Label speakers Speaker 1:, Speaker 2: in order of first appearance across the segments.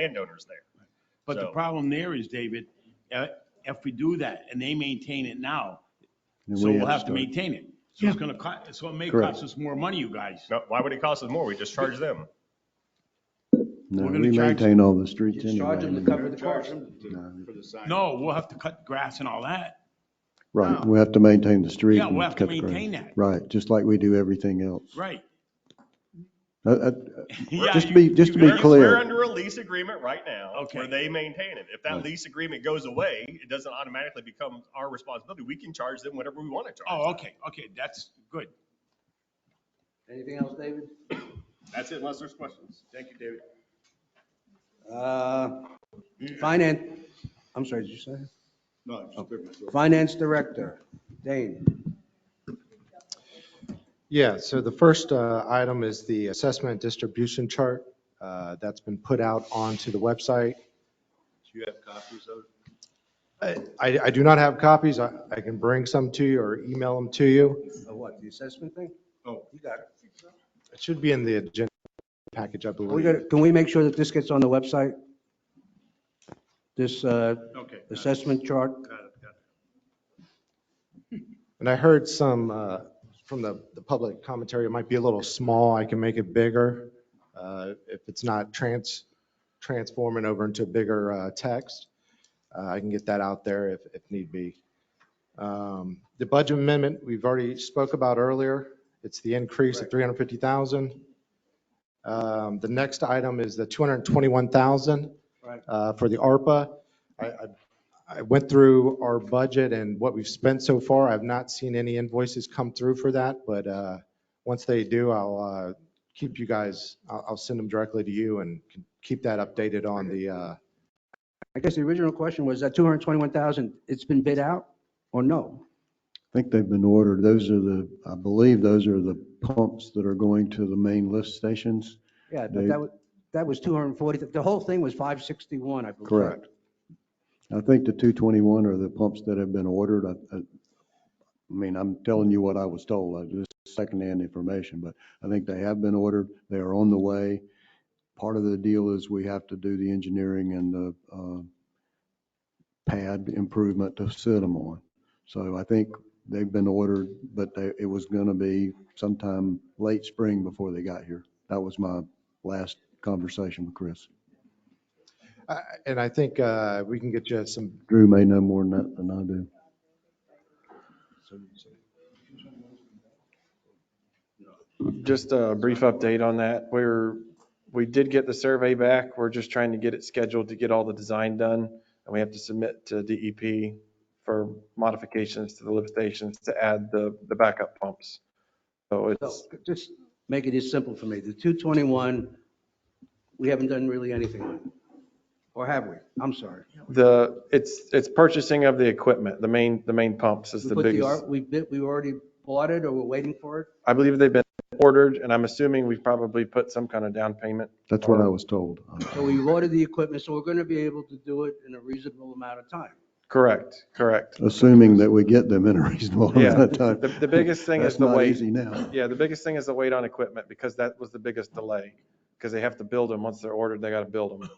Speaker 1: landowners there.
Speaker 2: But the
Speaker 1: So-
Speaker 2: problem there is, David, uh, if we do that and they maintain it now,
Speaker 3: And
Speaker 2: so
Speaker 3: we
Speaker 2: we'll have to
Speaker 3: start.
Speaker 2: maintain it. So it's gonna cost, so it may
Speaker 3: Correct.
Speaker 2: cost us more money, you guys.
Speaker 1: No, why would it cost us more? We just charge them.
Speaker 3: No,
Speaker 2: we're gonna
Speaker 3: we
Speaker 2: charge-
Speaker 3: maintain all the streets anyway.
Speaker 4: Charge them to cover the cost.
Speaker 2: No, we'll have to cut grass and all that.
Speaker 3: Right,
Speaker 2: No.
Speaker 3: we have to maintain the street.
Speaker 2: Yeah, we'll
Speaker 3: and
Speaker 2: have to
Speaker 3: cut the grass.
Speaker 2: maintain that.
Speaker 3: Right, just like we do everything else.
Speaker 2: Right.
Speaker 3: Uh, uh,
Speaker 2: Yeah,
Speaker 3: Just to
Speaker 2: you-
Speaker 3: be- just to
Speaker 2: you
Speaker 3: be
Speaker 2: guys-
Speaker 1: We're-
Speaker 3: clear.
Speaker 1: We're under a lease agreement right now
Speaker 2: Okay.
Speaker 1: where they maintain it. If that
Speaker 3: Right.
Speaker 1: lease agreement goes away, it doesn't automatically become our responsibility. We can charge them whatever we want to charge.
Speaker 2: Oh, okay, okay, that's good.
Speaker 4: Anything else, David?
Speaker 1: That's it, unless there's questions. Thank you, David.
Speaker 4: Uh, Finance, I'm sorry, did you say?
Speaker 5: No, just clear myself.
Speaker 4: Finance Director, Dane.
Speaker 6: Yeah, so the first uh, item is the assessment distribution chart uh, that's been put out onto the website.
Speaker 5: Do you have copies of it?
Speaker 6: I, I do not have copies. I I can bring some to you or email them to you.
Speaker 4: Uh, What, the assessment thing?
Speaker 5: Oh.
Speaker 4: You got it.
Speaker 6: It should be in the agenda package, I
Speaker 4: Can we
Speaker 6: believe.
Speaker 4: get- Can we make sure that this gets on the website? This uh,
Speaker 2: Okay.
Speaker 4: assessment chart?
Speaker 6: And I heard some uh, from the, the public commentary, it might be a little small. I can make it bigger uh, if it's not trans, transforming over into bigger uh, text. Uh, I can get that out there if, if need be. Um, The budget amendment, we've already spoke about earlier. It's the increase of 350,000. Um, The next item is the 221,000
Speaker 4: Right.
Speaker 6: uh, for the ARPA. I, I I went through our budget and what we've spent so far. I've not seen any invoices come through for that, but uh, once they do, I'll uh, keep you guys, I'll, I'll send them directly to you and can keep that updated on the, uh,
Speaker 4: I guess the original question was that 221,000, it's been bid out or no?
Speaker 3: I think they've been ordered. Those are the, I believe those are the pumps that are going to the main lift stations.
Speaker 4: Yeah, but
Speaker 3: They-
Speaker 4: that was, that was 240, the whole thing was 561, I believe.
Speaker 3: Correct. I think the 221 are the pumps that have been ordered. I, I I mean, I'm telling you what I was told, I just secondhand information, but I think they have been ordered. They are on the way. Part of the deal is we have to do the engineering and the uh, pad improvement to sit them on. So I think they've been ordered, but they, it was going to be sometime late spring before they got here. That was my last conversation with Chris.
Speaker 6: I- and I think uh, we can get you some,
Speaker 3: Drew may know more than that than I do.
Speaker 7: Just a brief update on that. We're, we did get the survey back. We're just trying to get it scheduled to get all the design done. And we have to submit to DEP for modifications to the lift stations to add the, the backup pumps. So
Speaker 4: So
Speaker 7: it's,
Speaker 4: just make it as simple for me. The 221, we haven't done really anything with. Or have we? I'm sorry.
Speaker 7: the, it's, it's purchasing of the equipment, the main, the main pumps is
Speaker 4: We
Speaker 7: the
Speaker 4: put the,
Speaker 7: biggest.
Speaker 4: R- we bid, we already bought it or we're waiting for it?
Speaker 7: I believe they've been ordered and I'm assuming we've probably put some kind of down payment.
Speaker 3: That's what I
Speaker 7: Or-
Speaker 3: was told.
Speaker 4: So we ordered the equipment, so we're going to be able to do it in a reasonable amount of time.
Speaker 7: Correct, correct.
Speaker 3: Assuming that we get them in a reasonable amount
Speaker 7: Yeah.
Speaker 3: of time.
Speaker 7: The, the biggest thing is
Speaker 3: That's
Speaker 7: the
Speaker 3: not
Speaker 7: weight.
Speaker 3: easy now.
Speaker 7: Yeah, the biggest thing is the weight on equipment because that was the biggest delay. Because they have to build them. Once they're ordered, they got to build them.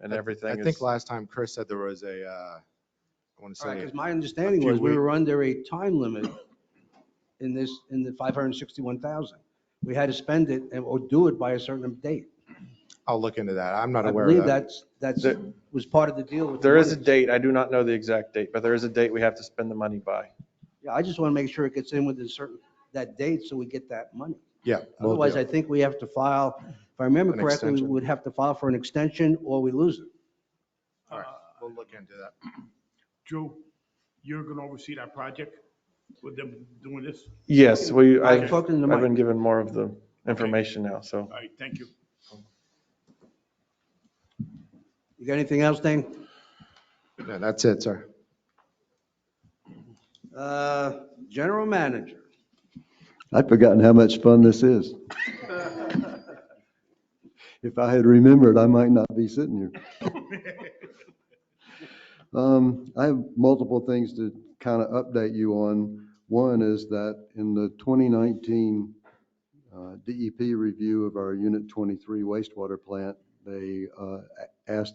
Speaker 7: And
Speaker 6: I
Speaker 7: everything
Speaker 6: think
Speaker 7: is,
Speaker 6: last time Chris said there was a, uh, I want to
Speaker 4: All right, because
Speaker 6: say,
Speaker 4: my understanding
Speaker 6: few
Speaker 4: was we
Speaker 6: weeks.
Speaker 4: were under a time limit in this, in the 561,000. We had to spend it and, or do it by a certain date.
Speaker 6: I'll look into that. I'm not
Speaker 4: I
Speaker 6: aware of
Speaker 4: believe
Speaker 6: that.
Speaker 4: that's, that's,
Speaker 7: There-
Speaker 4: was part of the deal with. the
Speaker 7: there is a
Speaker 4: owners.
Speaker 7: date. I do not know the exact date, but there is a date we have to spend the money by.
Speaker 4: Yeah, I just want to make sure it gets in within certain, that date so we get that money.
Speaker 6: Yeah. will
Speaker 4: Otherwise,
Speaker 6: do.
Speaker 4: I think we have to file, if I remember
Speaker 6: An
Speaker 4: correctly, we
Speaker 6: extension.
Speaker 4: would have to file for an extension or we lose it.
Speaker 6: All right, we'll look into that.
Speaker 2: Drew, you're gonna oversee that project with them doing this?
Speaker 7: Yes, we, I-
Speaker 4: I'm
Speaker 7: I've
Speaker 4: talking to
Speaker 7: been
Speaker 4: Mike.
Speaker 7: given more of the information now, so.
Speaker 2: All right, thank you.
Speaker 4: You got anything else, Dane?
Speaker 6: No, that's it, sir.
Speaker 4: Uh, General manager.
Speaker 3: I'd forgotten how much fun this is. If I had remembered, I might not be sitting here. Um, I have multiple things to kind of update you on. One is that in the 2019 E uh, DEP review of our Unit 23 wastewater plant, they uh, a- ask that